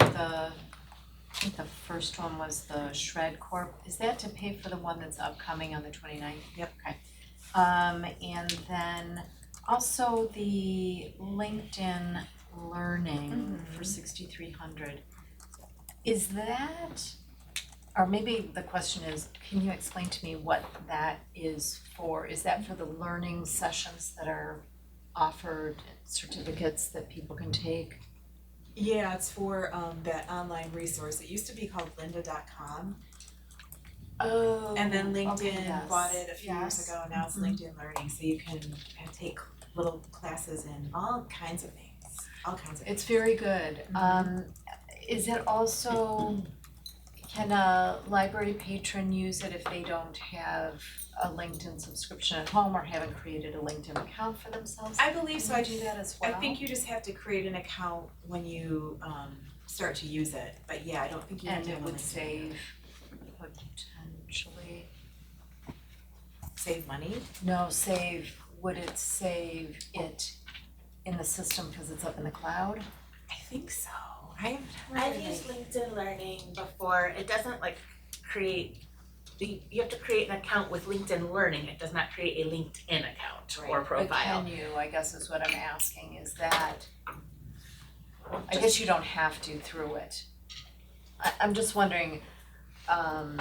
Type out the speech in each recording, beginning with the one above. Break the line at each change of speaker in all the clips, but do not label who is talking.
the, I think the first one was the Shred Corp. Is that to pay for the one that's upcoming on the 29th?
Yep.
Okay. Um, and then also the LinkedIn Learning for sixty-three hundred. Is that, or maybe the question is, can you explain to me what that is for? Is that for the learning sessions that are offered, certificates that people can take?
Yeah, it's for um that online resource. It used to be called lynda.com
Oh.
and then
okay,
LinkedIn
yes,
bought it a few years
yes.
ago. Now it's
Mhm.
LinkedIn Learning, so you can uh, take little classes in all kinds of things, all kinds of.
It's very good.
Mhm.
Um, is it also, can a library patron use it if they don't have a LinkedIn subscription at home or haven't created a LinkedIn account for themselves?
I believe so.
Can
I
you do that as
I
well?
think you just have to create an account when you um start to use it. But yeah, I don't think you have
And
to
it
have a
would
LinkedIn.
save potentially,
save money.
no, save, would it save it in the system because it's up in the cloud?
I think so. I haven't
I've used LinkedIn Learning before. It doesn't like create, you you have to create an account with LinkedIn Learning. It does not create a LinkedIn account or
But
profile.
can you, I guess is what I'm asking, is that, I guess you don't have to through it. I, I'm just wondering, um,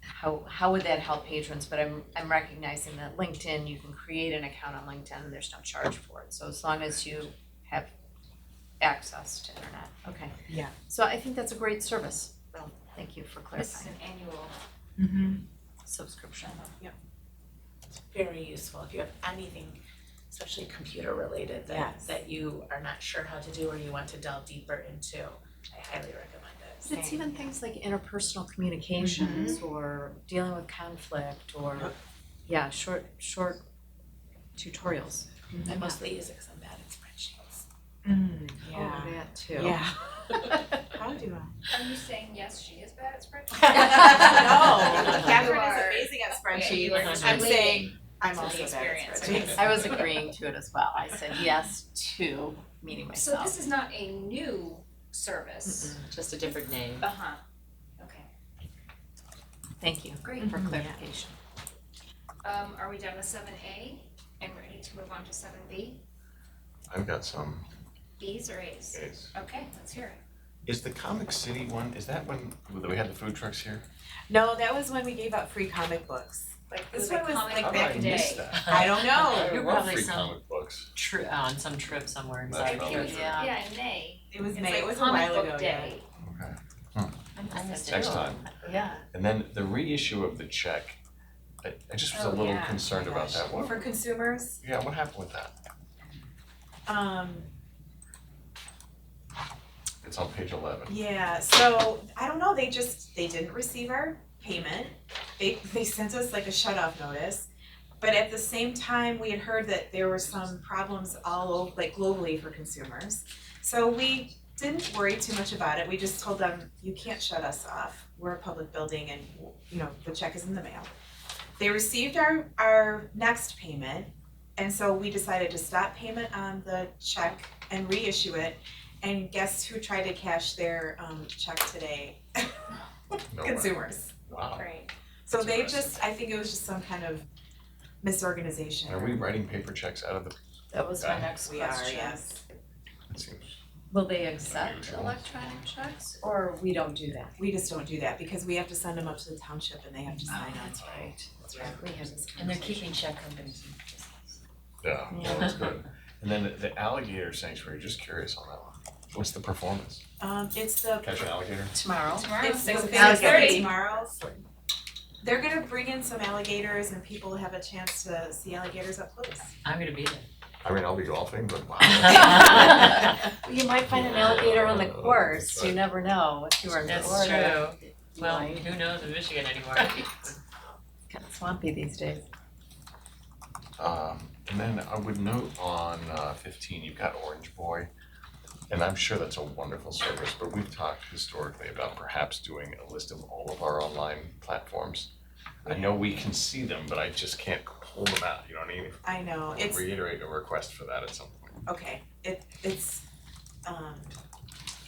how, how would that help patrons, but I'm, I'm recognizing that LinkedIn, you can create an account on LinkedIn, and there's no charge for it, so as long as you have access to internet, okay.
Yeah.
So I think that's a great service, Well, thank you for
This is
clarifying,
an annual.
Mm-hmm.
subscription.
Very useful if you have anything, especially computer related that
Yes.
that you are not sure how to do or you want to delve deeper into. I highly recommend it.
But It's even things like interpersonal communications or dealing with conflict or,
Yep.
yeah, short, short tutorials.
I mostly use Excel bad at spreadsheets.
Yeah.
Oh, that too.
Yeah. How do
Are you saying yes, she is bad at spreadsheets?
I?
No,
Catherine is
amazing at
Okay, you are just
I'm
relating
saying I'm
to
also
the
bad at
experience.
spreadsheets.
I was agreeing to it as well. I said yes to meeting
So
myself.
this is not a new service?
Just a different name.
Uh-huh, okay.
Thank you
Great.
for clarification.
Um, are we done with seven A and ready to move on to seven B?
I've got some.
Bs or As?
Is
Okay, let's hear it.
is the Comic City one, is that when we had the food trucks here?
No, that was when we gave out free comic books.
Like,
This
this
one
was
was
comic
like
How
book
did I
back
day.
miss that?
I don't know.
You're
Love
probably
free
some-
comic books.
Tri-
uh,
on some trip somewhere in
That's
South
I
probably
think it was,
Dakota.
Yeah.
yeah, in May.
It was
It's
May,
like
it was a
comic
while
book
ago, yeah.
day.
I missed
Next
it.
time.
Yeah.
And then the reissue of the check, I, I just was a
Oh,
little
yeah.
concerned about that. What,
For consumers,
yeah, what happened with that?
um,
It's on page eleven.
yeah, so, I don't know, they just, they didn't receive our payment. They, they sent us like a shut off notice. But at the same time, we had heard that there were some problems all over, like globally for consumers. So we didn't worry too much about it, we just told them, you can't shut us off, we're a public building and, you know, the check is in the mail. They received our, our next payment, and so we decided to stop payment on the check and reissue it. And guess who tried to cash their um check today?
No way.
Consumers.
Wow.
Right.
So
That's
they
impressive.
just, I think it was just some kind of misorganization.
Are we writing paper checks out of the,
That was my
Okay.
next
We are,
question.
yes.
it seems,
Will they accept
Unusual.
electronic checks or we don't do that?
We just don't do that because we have to send them up to the township and they have to sign on.
Oh, that's right.
That's right.
We have this
And they're
conversation.
keeping check companies.
yeah, well, that's good. And then the- the alligator sanctuary, just curious on that one. What's the performance?
Um it's the
Catch an alligator?
Tomorrow.
Tomorrow,
It's
six
the
o'clock.
biggest thing
Thirty.
tomorrow. They're gonna bring in some alligators and people have a chance to see alligators up close.
I'm gonna be there.
I mean, I'll be golfing, but wow.
You might find an alligator on the course, you never know if you were in Florida.
That's true. Well, who knows in Michigan anymore?
Kind of swampy these days.
Um, and then I would note on uh, fifteen, you've got Orange Boy, and I'm sure that's a wonderful service, but we've talked historically about perhaps doing a list of all of our online platforms. I know we can see them, but I just can't pull them out, you know what I mean?
I know,
I'll
it's
Reiterate a request for that at some point.
okay, it it's um